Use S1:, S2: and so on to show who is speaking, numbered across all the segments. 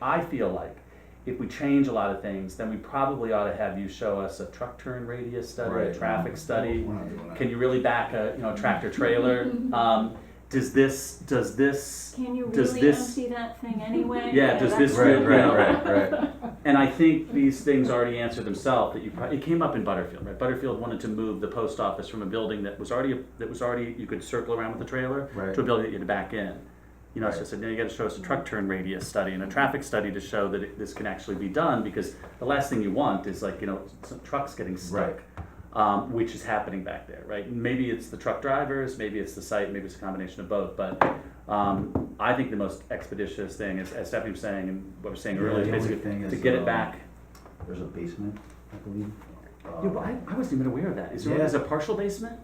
S1: I feel like if we change a lot of things, then we probably ought to have you show us a truck turn radius study, a
S2: Right. Mm-hmm.
S1: traffic study.
S2: We're not doing that.
S1: Can you really back a, you know, tractor trailer? Um, does this, does this,
S3: Can you
S1: Does
S3: really
S1: this-
S3: empty that thing anyway?
S1: Yeah, does
S3: that's-
S1: this
S2: Right,
S1: really-
S2: right, right, right.
S1: and I think these things already answer themselves, that you probably, it came up in Butterfield, right? Butterfield wanted to move the post office from a building that was already, that was already, you could circle around with a trailer,
S2: Right.
S1: to a building that you had to back in. You know, so I
S2: Right.
S1: said, now you gotta show us a truck turn radius study and a traffic study to show that it- this can actually be done, because the last thing you want is like, you know, some trucks getting stuck.
S2: Right.
S1: Um, which is happening back there, right? Maybe it's the truck drivers, maybe it's the site, maybe it's a combination of both, but, um, I think the most expeditious thing is, as Stephanie was saying, and what I was saying
S2: Yeah,
S1: earlier,
S2: the
S1: is
S2: only thing
S1: to
S2: is,
S1: get it
S2: um,
S1: back.
S2: There's a basement, I believe. Uh,
S1: Yeah, but I, I wasn't even aware of that. Is there
S2: Yeah.
S1: is a partial basement?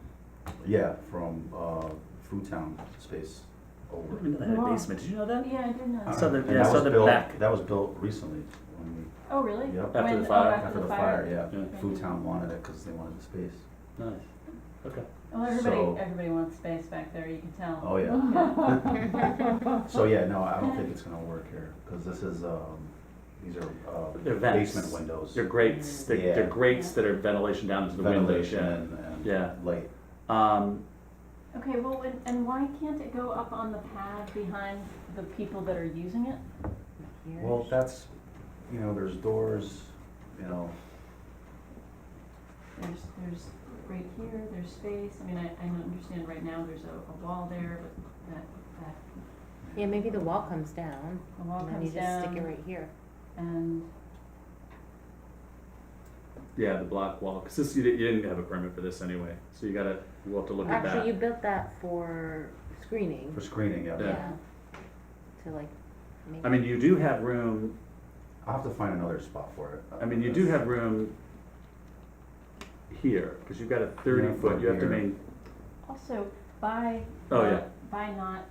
S2: Yeah, from, uh, Food Town space
S1: I
S2: over.
S1: didn't know they had a
S3: Wow.
S1: basement. Did you know
S4: oh,
S1: that?
S3: Yeah, I did know.
S1: Uh, So the-
S2: And
S1: yeah,
S2: that
S1: so
S2: was
S1: the
S2: built-
S1: back.
S2: That was built recently when we,
S3: Oh, really?
S2: Yep.
S3: When-
S1: After the
S3: oh,
S1: fire.
S2: after the fire,
S1: Yeah.
S2: yeah. Food Town wanted it because they wanted the space.
S1: Nice. Okay.
S4: Well,
S2: So-
S4: everybody, everybody wants space back there, you can tell.
S2: Oh, yeah. So, yeah, no, I don't think it's gonna work here, because this is, um, these are,
S1: They're
S2: uh,
S1: vents.
S2: basement windows.
S1: They're grates. They're, they're
S2: Yeah.
S1: grates that are ventilation down to the windows.
S2: Ventilation
S1: Yeah.
S2: and,
S1: Yeah.
S2: and light.
S1: Um,
S4: Okay, well, and, and why can't it go up on the pad behind the people that are using it? Here?
S2: Well, that's, you know, there's doors, you know,
S4: There's, there's, right here, there's space, I mean, I, I understand right now there's a, a wall there, but that, that,
S5: Yeah, maybe the wall comes down,
S4: the wall
S5: and then
S4: comes
S5: you just stick it
S4: down,
S5: right here.
S4: and,
S1: yeah, the block wall. Because this you, di- you didn't have a permit for this anyway, so you gotta we'll have to look at that.
S5: Actually, you built that for screening,
S2: for screening, yeah.
S1: Yeah.
S5: yeah, to like,
S1: I
S5: maybe,
S1: mean, you do have room.
S2: I'll have to find another spot for it.
S1: I mean, you do have room here because you've got a thirty
S2: Yeah,
S1: foot. You have to
S2: here.
S1: main.
S4: also, by,
S1: Oh,
S4: not-
S1: yeah.
S4: by not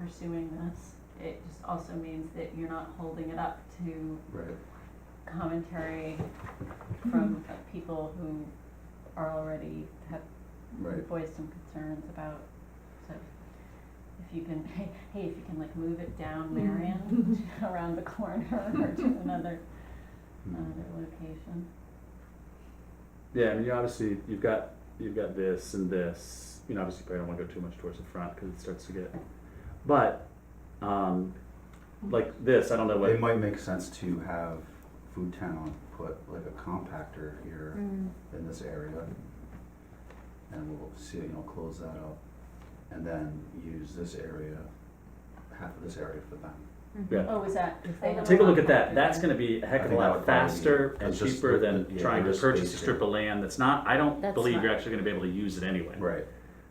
S4: pursuing this, it just also means that you're not holding it up to
S2: Right.
S4: commentary from uh, people who are already have
S2: Right.
S4: voiced some concerns about, so if you can, hey, hey, if you can like move it down Marion around the corner or to another, another location.
S1: Yeah, I mean, you obviously you've got you've got this and this. You know, obviously, you probably don't want to go too much towards the front because it starts to get. But, um, like this, I don't know what.
S2: It might make sense to have Food Town put like a compactor here
S5: Mm,
S1: Mm-hmm.
S2: in this area. And we'll see, you know, close that up and then use this area, half of this area for them.
S5: mhm.
S1: Yeah.
S4: Oh, is that, if they have
S1: Take a look at
S4: compactor
S1: that. That's
S4: then-
S1: going to be a heck of a
S2: think that
S1: lot
S2: would probably
S1: faster
S2: be-
S1: and
S2: it's just
S1: cheaper
S2: the-
S1: than
S2: the- yeah,
S1: trying to
S2: there is
S1: purchase a
S2: space
S1: strip
S2: here.
S1: of land that's not. I don't
S5: That's
S1: believe you're
S5: not-
S1: actually going to be able to use it anyway.
S2: Right.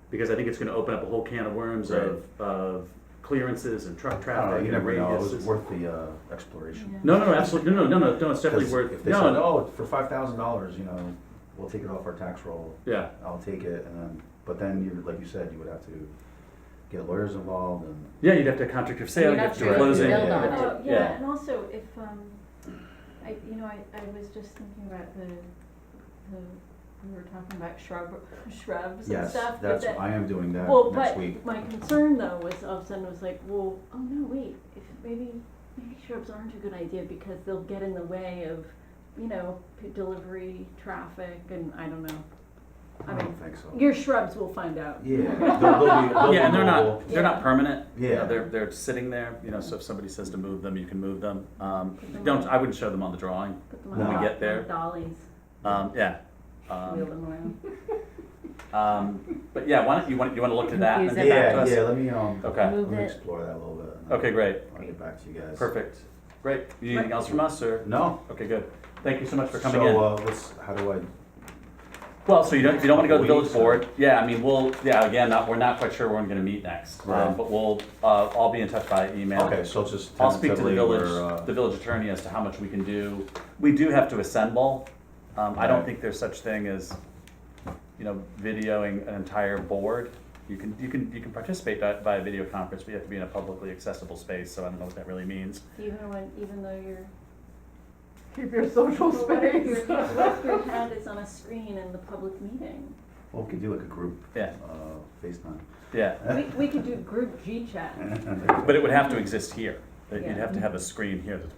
S1: Because I think it's going to open up a whole can of worms
S2: Right.
S1: of of clearances and truck
S2: I don't know,
S1: traffic and
S2: you never know, it
S1: radiuses.
S2: was worth the uh, exploration.
S1: no, no, no, absolutely, no, no, no, no, no. It's definitely
S2: 'Cause
S1: worth.
S2: If they
S1: No,
S2: said,
S1: no,
S2: oh, for five thousand dollars, you know, we'll take it off our tax roll,
S1: yeah,
S2: I'll take it and then, but then you, like you said, you would have to get lawyers involved and
S1: yeah. You'd have to contract of sale.
S5: you're
S1: You'd
S5: not
S1: have to
S5: sure
S1: do
S2: if you
S1: closing.
S2: build
S1: you'd
S2: on
S1: have
S5: it.
S1: to-
S4: Oh, yeah, and also if, um, I, you know, I, I was just thinking about the, the, we were talking about shrub, shrubs and
S2: Yes,
S4: stuff, but
S2: that's,
S4: that,
S2: I am doing that
S4: well,
S2: next
S4: but
S2: week.
S4: my concern though was all of a sudden was like, well, oh no, wait, if maybe, maybe shrubs aren't a good idea because they'll get in the way of, you know, p- delivery, traffic, and I don't know. I
S2: I
S4: mean,
S2: don't think so.
S4: your shrubs will find out.
S2: Hmm. Yeah, they'll, they'll be, they'll be
S1: Yeah, and they're
S2: mobile.
S1: not, they're
S4: Yeah.
S1: not permanent. You know,
S2: Yeah.
S1: They're, they're sitting there, you know, so if somebody says to move them, you can move them. Um,
S4: Put them
S1: don't,
S4: on-
S1: I wouldn't show them on the drawing.
S4: Put them on
S2: When we
S4: do-
S1: get there.
S4: on Dollies,
S1: Um, yeah.
S4: wheel
S1: Um,
S4: them around.
S1: um, but yeah, why don't, you want, you want to look at that and then
S5: Confuse
S1: get back to
S2: Yeah,
S1: us?
S2: yeah, let me, um,
S1: Okay,
S2: let
S5: Move
S2: me
S5: it.
S2: explore that a little bit. and
S1: okay, great,
S2: I'll get back to you guys.
S1: perfect. Great. You need anything else from us or?
S2: No.
S1: Okay, good. Thank you so much for coming
S2: So,
S1: in.
S2: uh, let's, how do I,
S1: Well, so you don't, if you don't want to go to the village
S2: Weeks or-
S1: board, yeah, I mean, we'll, yeah, again, not, we're not quite sure when we're going to meet next. Um,
S2: Right.
S1: but we'll, uh, I'll be in touch by email.
S2: okay, so it's just
S1: I'll speak to the
S2: tentatively we're,
S1: village,
S2: uh,
S1: the village attorney as to how much we can do. We do have to assemble. Um, I don't
S2: Right.
S1: think there's such thing as, you know, videoing an entire board. You can, you can, you can participate by, by video conference, but you have to be in a publicly accessible space, so I don't know what that really means.
S4: Even when, even though you're
S6: Keep your social
S4: Well, What if
S6: space.
S4: your, what if your head is on a screen in the public meeting?
S2: well, we could do like a group, uh,
S1: Yeah,
S2: FaceTime.
S1: yeah.
S4: We, we could do group G chat.
S1: But it would have to exist here. You'd
S4: Yeah.
S1: have to have a screen here that's